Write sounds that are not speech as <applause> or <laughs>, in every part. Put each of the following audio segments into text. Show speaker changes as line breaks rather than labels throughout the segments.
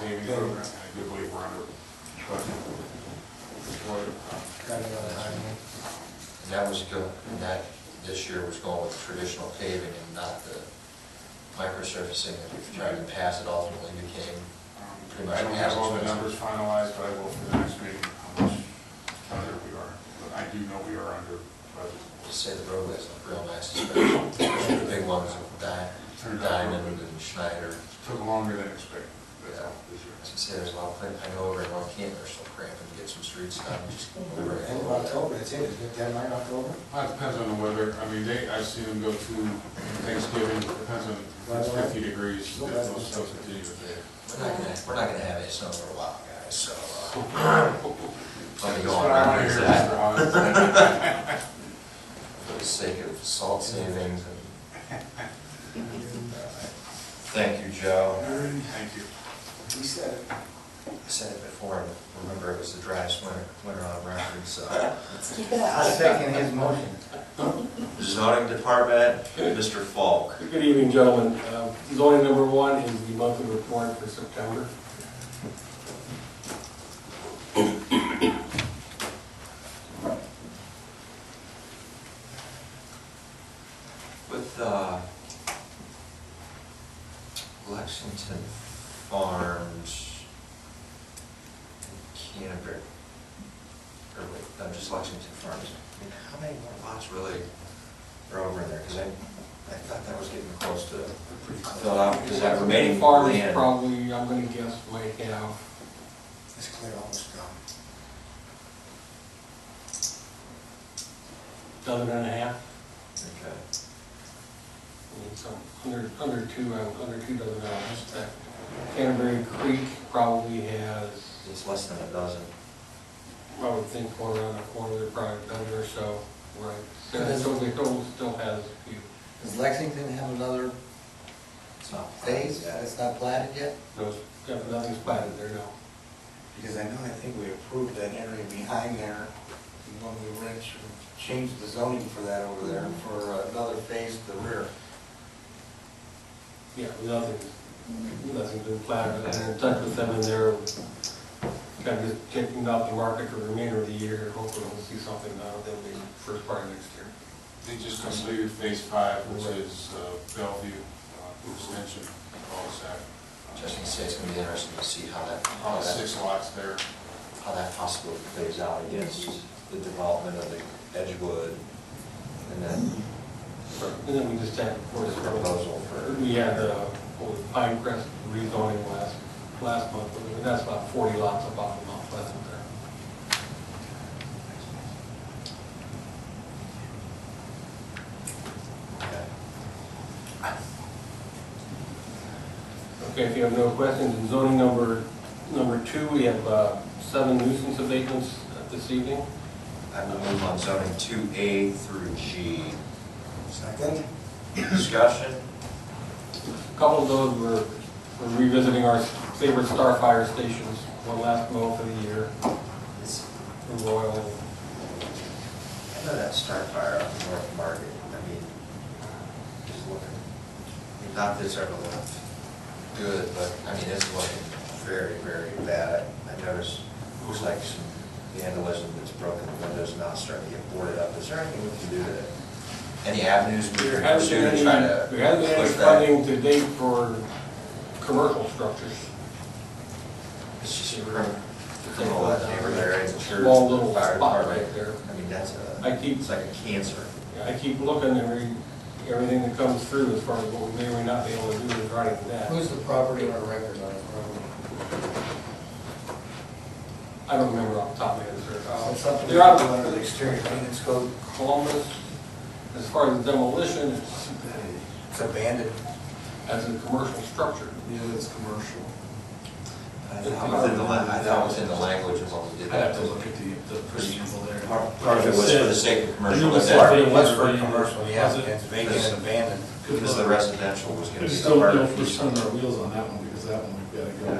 paving program, and I do believe we're under Um, budget.
Got another highway.
And that was good, and that, this year was going with traditional paving and not the microsurfacing that we've tried in the past, it ultimately became.
Um, I don't have all the numbers finalized, but I will for the next meeting, how much under we are. But I do know we are under
To
budget.
say the roadways look real nice, especially the big ones with Di- Diamond and Schneider.
Took longer than expected, that's all, this
As I
year.
say, there's a lot of, pla- I know over in Waukegan, they're still cramping to get some streets done, just over.
End of October, it's it, is it deadline October?
Well, Uh, it depends on the weather, I mean, they, I've seen them go through Thanksgiving, depends on, if it's fifty degrees,
Well,
they'll
that's-
still continue to be.
We're not gonna, we're not gonna have any snow for a while, guys, so. uh, Let me
That's
go
what
on
I wanna
record
hear,
as
Mr.
that,
Hawes.
for the sake of salt savings <laughs> and. Thank you, Joe.
Thank you.
He said it.
I said it before, and remember, it was the driest winter, winter on record, so.
Keep it up.
I was taking his motion.
<laughs> Zoning Department, Mr. Falk.
Good evening, gentlemen. Uh, Zoning number one is the monthly report for September.
With uh, Lexington Farms and Canterbury, or wait, no, just Lexington Farms. I mean, How many more lots really are over in there? Because I, I thought that was getting close to filled out, because Um, that remaining
Farmers
land.
Probably, I'm gonna guess, might have
It's clear, almost gone.
a dozen and a half,
Okay.
I mean, some, under, under two, uh, under two dozen dollars. That Canterbury Creek probably has,
It's less than a dozen.
I would think, one around the corner, they're probably a dozen or so, right? And so the total still has a few.
Does Lexington have another
It's not.
phase that's not platted yet?
Those, got nothing spotted there now.
Because I know, I think we approved that area behind there when we were in- changed the zoning for that over there for uh, another phase to the rear.
Yeah, nothing's, nothing's been flattered, and in touch with them, and they're kind of just taking out the market for the remainder of the year, hopefully we'll see something out of them the first part of next year.
They just completed phase five, which is uh, Bellevue uh, Extension, cul-de-sac.
Just gonna say, it's gonna be interesting to see how that, how
All
that,
six lots there.
how that possibly plays out against the development of the Edgewood and then
And then we just had, of course,
the proposal for,
we had the whole Pine Crest rezoning last, last month, but that's about forty lots above the month, that's there.
okay.
Okay, if you have no questions, in zoning number, number two, we have uh, seven nuisance abatements uh, this evening.
I will move on zoning two A through G.
Second?
Discussion?
A Couple of those were we're revisiting our favorite Starfire stations, one last mow for the year,
It's-
for Royal.
I know that Starfire up in North Market, I mean, uh, just looking, I mean, not this ever looked good, but, I mean, it's looking very, very bad. I noticed, it was like some vandalism that's broken, the windows now starting to get boarded up. Is there anything we can do to, any avenues we
There
can
hasn't
pursue to
been any,
try to?
there hasn't been any
push that?
funding to date for commercial structures.
It's just a room, criminal neighborhood area, the church,
Small little
the fire
spot right
department.
there.
I mean, that's a,
I keep,
it's like a cancer.
I keep looking every, everything that comes through as far as what we may or may not be able to do regarding that.
Who's the property or record on it? Robert?
I don't remember off the top of my head, sir.
Oh,
Uh,
Uh,
it's something
They're out
under the exterior maintenance code.
of Columbus, as far as demolition, it's,
It's abandoned.
as a commercial structure.
Yeah, it's commercial.
I thought it was in the, la- I thought it was in the language of what we did.
I'd have to look at the, the preamble there.
Part
Part of it was for the sake of commercial, but
Yeah.
that,
of it was for commercial, yeah,
Was it?
it's vacant and abandoned.
because the residential was gonna
I
be
just
the
don't
part
know
of
if we're spinning our
the.
wheels on that one, because that one we've gotta go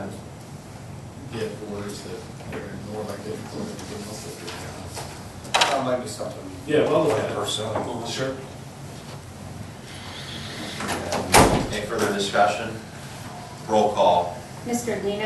get orders that are more like it, or anything else that we're
That might be something.
Yeah, well, look at it.
Personal.
Sure.
Any further discussion? Roll call.
Mr. Dino?